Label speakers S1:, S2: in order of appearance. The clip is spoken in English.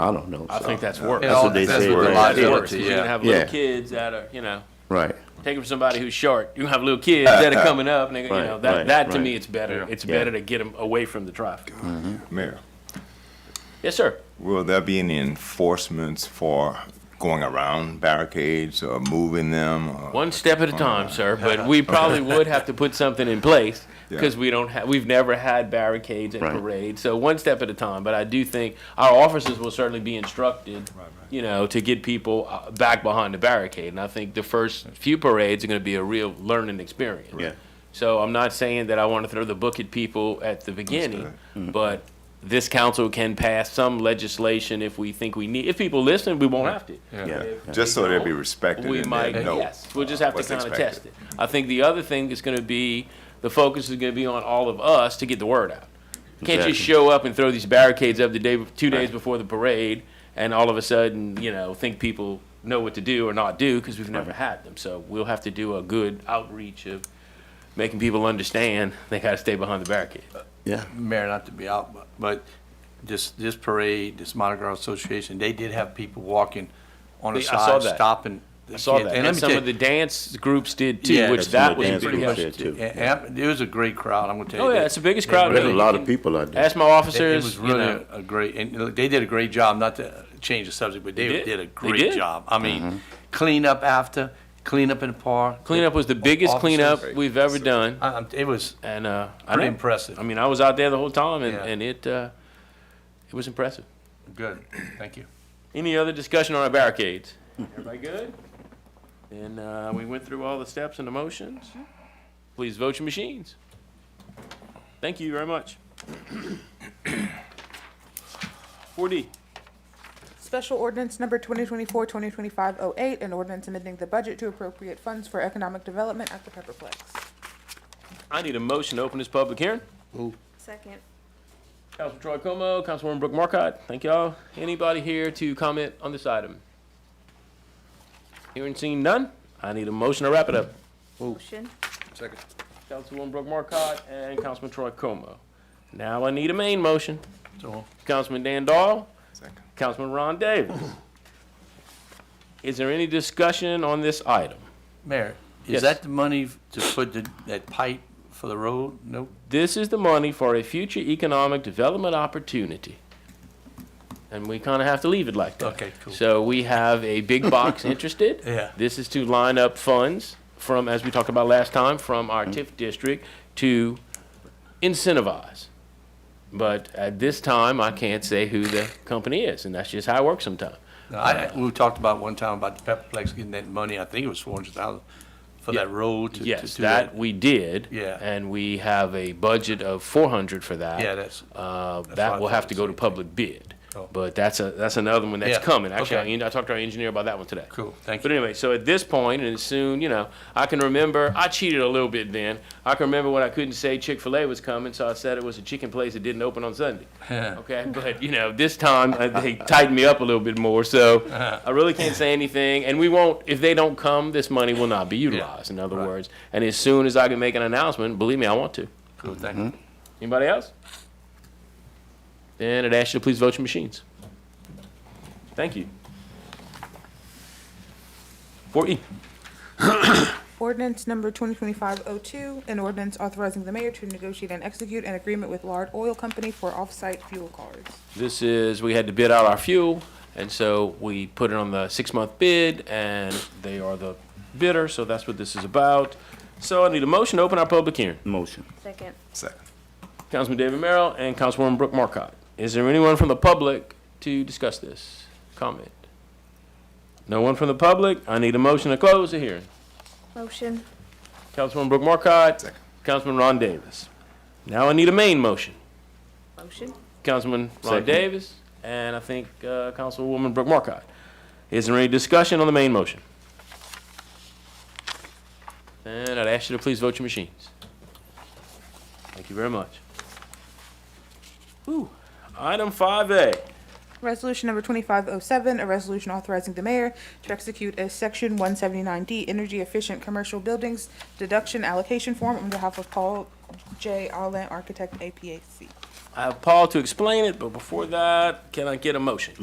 S1: I don't know.
S2: I
S1: so.
S2: think that's worse.
S1: That's what they
S3: That's
S1: say.
S3: what the
S1: right?
S2: That's
S3: liability-
S2: worse, 'cause you're gonna have
S1: Yeah.
S2: little kids that are, you know,
S1: Right.
S2: take them from somebody who's short. You're gonna have little kids that are coming up, and they, you
S1: Uh, Right,
S2: know, that,
S1: right,
S2: that to
S1: right.
S2: me, it's better. It's
S1: Yeah.
S2: better to get them away from the traffic.
S4: Mayor,
S2: Yes, sir.
S4: will there be any enforcements for going around barricades or moving them? or-
S2: One step at a time, sir, but we probably would have to put something in place because we don't have, we've never had barricades at
S1: Right.
S2: parades. So one step at a time, but I do think our officers will certainly be instructed, you know, to get people uh, back behind the barricade. And I think the first few parades are going to be a real learning experience.
S1: Yeah.
S2: So I'm not saying that I want to throw the book at people at the beginning, but this council can pass some legislation if we think we need, if people listen, we won't have to.
S1: Yeah.
S4: Just so they'll be respected
S2: We
S4: and
S2: might,
S4: they know
S2: yes, we'll just have to
S4: what's
S2: kind of
S4: expected.
S2: test it. I think the other thing is gonna be, the focus is gonna be on all of us to get the word out. Can't
S1: Exactly.
S2: just show up and throw these barricades up the day, two days before the parade, and all of a sudden, you know, think people know what to do or not do, because we've never had them. So we'll have to do a good outreach of making people understand they gotta stay behind the barricade.
S1: Yeah.
S3: Mayor, not to be out, but, but this, this parade, this Mardi Gras Association, they did have people walking on the
S2: They- I saw
S3: side,
S2: that.
S3: stopping.
S2: I saw that,
S3: And let
S2: and
S3: me
S2: some
S3: tell
S2: of
S3: you,
S2: the dance groups did too,
S3: Yeah,
S2: which
S3: some
S2: that
S1: of the
S2: was
S1: dance
S2: pretty
S1: groups
S2: much.
S1: did, too.
S3: and- and it was a great crowd, I'm gonna tell you.
S2: Oh, yeah,
S3: that.
S2: it's the biggest crowd.
S1: There's a
S2: ever.
S1: lot of people out there.
S2: Ask my
S3: It it was
S2: officers, you know.
S3: really a great, and look, they did a great job, not to change the subject, but
S2: They
S3: they
S2: did.
S3: did a
S2: They
S3: great
S2: did.
S3: job. I
S1: Mm-hmm.
S3: mean, clean up after, clean up in the park.
S2: Cleanup was the biggest
S3: Officers.
S2: cleanup we've ever done,
S3: I- I'm- It was,
S2: and uh, I
S3: Pretty
S2: know.
S3: impressive.
S2: I mean, I was out there the whole time, and,
S3: Yeah.
S2: and it uh, it was impressive.
S3: good, thank you.
S2: Any other discussion on our barricades? Everybody good? And uh, we went through all the steps and the motions. Please vote your machines. Thank you very much. 4D.
S5: Special ordinance number 2024-2025-08, an ordinance amending the budget to appropriate funds for economic development at the Pepperplex.
S2: I need a motion to open this public hearing.
S6: Second.
S2: Councilman Troy Como, Councilwoman Brooke Marcotte, thank y'all. Anybody here to comment on this item? Hearing seen none, I need a motion to wrap it up.
S6: Motion.
S2: Councilwoman Brooke Marcotte and Councilman Troy Como. Now I need a main motion.
S3: So,
S2: Councilman Dan Dahl, Councilman Ron Davis. Is there any discussion on this item?
S3: Mayor,
S2: Yes.
S3: is that the money to put the, that pipe for the road? Nope.
S2: This is the money for a future economic development opportunity. And we kind of have to leave it like that.
S3: Okay, cool.
S2: So we have a big box interested.
S3: Yeah.
S2: This is to line up funds from, as we talked about last time, from our
S3: Mm-hmm.
S2: TIF district to incentivize. But at this time, I can't say who the company is, and that's just how it works sometimes.
S3: No, I, I- we talked about one time about the Pepperplex getting that money, I think it was four hundred thousand, for that road to, to
S2: Yes,
S3: do
S2: that
S3: that.
S2: we did.
S3: Yeah.
S2: And we have a budget of four hundred for that.
S3: Yeah, that's-
S2: Uh,
S3: what I
S2: that will
S3: thought
S2: have to
S3: the
S2: go to
S3: same thing.
S2: public bid.
S3: Oh.
S2: But that's a, that's another one that's
S3: Yeah,
S2: coming. Actually, I
S3: okay.
S2: en- I talked to our engineer about that one today.
S3: Cool, thank
S2: But
S3: you.
S2: anyway, so at this point, and soon, you know, I can remember, I cheated a little bit then. I can remember when I couldn't say Chick-fil-A was coming, so I said it was a chicken place that didn't open on Sunday. Okay, but, you know, this time, uh, they tightened me up a little bit more, so
S3: Uh-huh.
S2: I really can't say anything. And we won't, if they don't come, this money will not be utilized, in other
S3: right.
S2: words. And as soon as I can make an announcement, believe me, I want to.
S3: Cool, thank
S2: Mm-hmm.
S3: you.
S2: Anybody else? Then I'd ask you to please vote your machines. Thank you. Four E.
S5: Ordinance number 2025-02, an ordinance authorizing the mayor to negotiate and execute an agreement with Lard Oil Company for off-site fuel cards.
S2: This is, we had to bid out our fuel, and so we put it on the six-month bid, and they are the bidder, so that's what this is about. So I need a motion to open our public hearing.
S1: Motion.
S6: Second.
S4: Second.
S2: Councilman David Merrill and Councilwoman Brooke Marcotte. Is there anyone from the public to discuss this? Comment? No one from the public? I need a motion to close the hearing.
S6: Motion.
S2: Councilwoman Brooke Marcotte. Councilman Ron Davis. Now I need a main motion.
S6: Motion.
S2: Councilman Ron
S1: Second.
S2: Davis, and I think uh, Councilwoman Brooke Marcotte. Is there any discussion on the main motion? And I'd ask you to please vote your machines. Thank you very much. Whew. Item 5A.
S5: Resolution number 2507, a resolution authorizing the mayor to execute a Section 179D Energy Efficient Commercial Buildings Deduction Allocation Form on behalf of Paul J. Allen Architect APAC.
S2: I have Paul to explain it, but before that, can I get a motion?